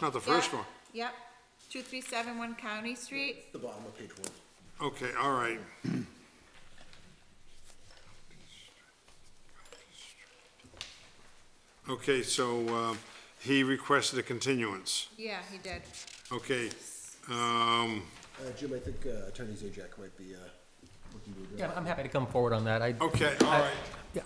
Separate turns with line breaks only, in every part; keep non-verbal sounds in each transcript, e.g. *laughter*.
Not the first
Yeah,
one.
Yep, two three seven one County Street,
The bottom of page one.
Okay, all right. Okay, so, uh, he requested a continuance.
yeah, he did.
Okay, um,
Uh, Jim, I think uh, Attorney Zajac might be, uh, looking to address.
Yeah, I'm happy to come forward on that. I,
okay, all right.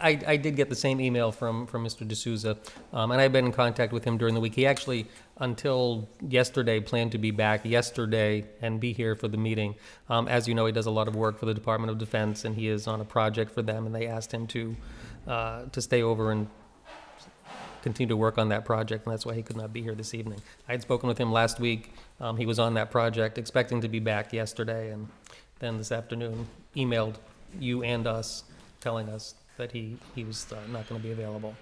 I, I did get the same email from, from Mr. D'Souza, um, and I've been in contact with him during the week. He actually, until yesterday, planned to be back yesterday and be here for the meeting. Um, as you know, he does a lot of work for the Department of Defense, and he is on a project for them, and they asked him to, uh, to stay over and continue to work on that project, and that's why he could not be here this evening. I had spoken with him last week. Um, he was on that project, expecting to be back yesterday, and then this afternoon emailed you and us, telling us that he, he was uh, not going to be available.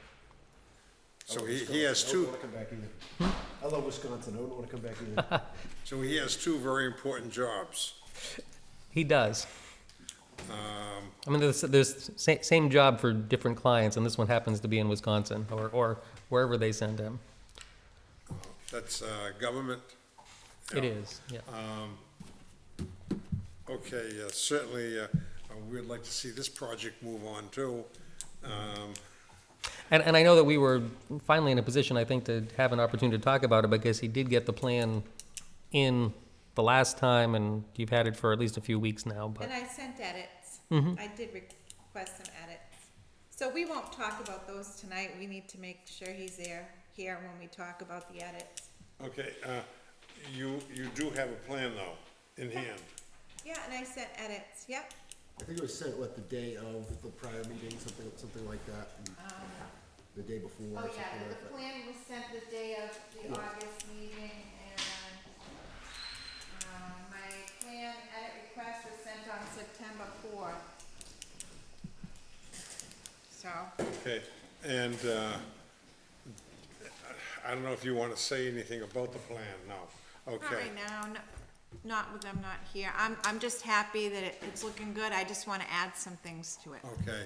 So he, he has two,
I wouldn't wanna come back either. I love Wisconsin, I wouldn't wanna come back *laughs* either.
so he has two very important jobs.
He does. I mean, there's, there's sa- same job for different clients, and this one happens to be in Wisconsin or, or wherever they send him.
That's, uh, government.
It is, yeah.
Okay, uh, certainly, uh, we'd like to see this project move on too. Um,
And, and I know that we were finally in a position, I think, to have an opportunity to talk about it because he did get the plan in the last time and you've had it for at least a few weeks now,
And
but
I sent edits.
Mm-hmm.
I did request some edits. So we won't talk about those tonight, we need to make sure he's there, here when we talk about the edits.
Okay, uh, you, you do have a plan though, in hand.
Yeah, and I sent edits, yep,
I think it was sent, what, the day of the prior meeting, something, something like that, and the day before,
Uh, oh
or something
yeah, the
like that.
plan was sent the day of the August meeting and, um, my plan edit request was sent on September fourth. So.
Okay, and, uh, I don't know if you want to say anything about the plan now.
Not
Okay,
right now, no- not with them not here. I'm, I'm just happy that it- it's looking good. I just want to add some things to it.
okay,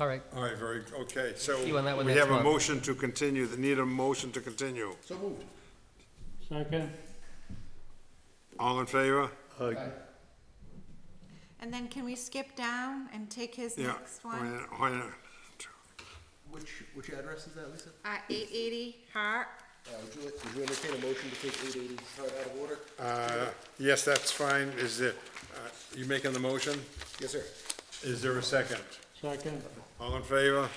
all right.
all right, very, okay, so.
See you on that one
We
next
have a
month.
motion to continue, the need a motion to continue.
So moved.
Second?
All in favor?
And then can we skip down and take his
Yeah.
next one?
Why- why-
Which, which address is that, Lisa?
Uh, eight eighty Hart.
Uh, would you, like- would you entertain a motion to take eight eighty Hart out of order?
Uh, yes, that's fine, is it, uh, you making the motion?
Yes, sir.
Is there a second?
Second?
All in favor?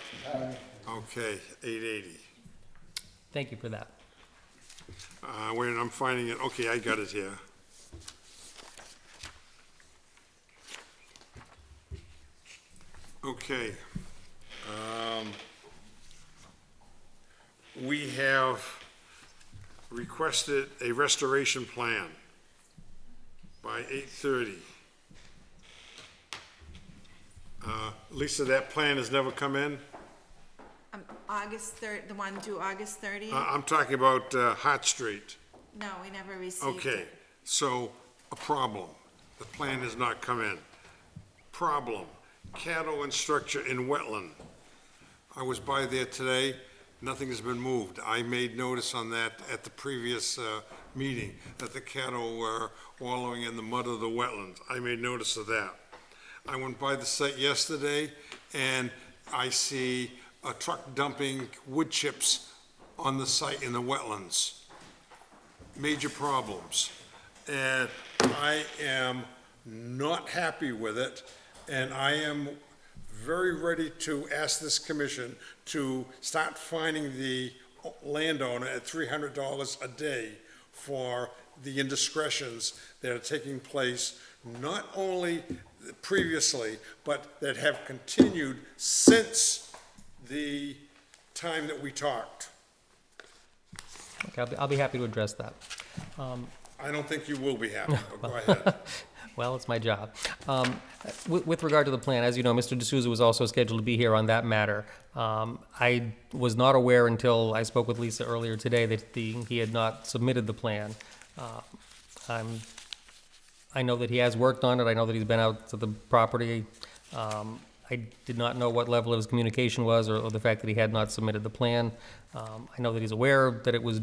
Okay, eight eighty.
Thank you for that.
Uh, wait, I'm finding it, okay, I got it here. Okay. Um, we have requested a restoration plan by eight thirty. Uh, Lisa, that plan has never come in?
Um, August third, the one due August thirtieth?
I, Uh, I'm talking about, uh, Hart Street.
No, we never received
Okay,
it.
so a problem. The plan has not come in. Problem, cattle and structure in wetland. I was by there today, nothing has been moved. I made notice on that at the previous, uh, meeting, that the cattle were wallowing in the mud of the wetlands. I made notice of that. I went by the site yesterday, and I see a truck dumping wood chips on the site in the wetlands major problems. And I am not happy with it, and I am very ready to ask this commission to start fining the landowner at three hundred dollars a day for the indiscretions that are taking place, not only previously, but that have continued since the time that we talked.
Okay, I'll be, I'll be happy to address that.
I don't think you will be happy, but go ahead.
Well, it's my job. Um, with, with regard to the plan, as you know, Mr. D'Souza was also scheduled to be here on that matter. Um, I was not aware until I spoke with Lisa earlier today that the, he had not submitted the plan. Uh, I'm, I know that he has worked on it. I know that he's been out to the property. Um, I did not know what level of his communication was or, or the fact that he had not submitted the plan. Um, I know that he's aware that it was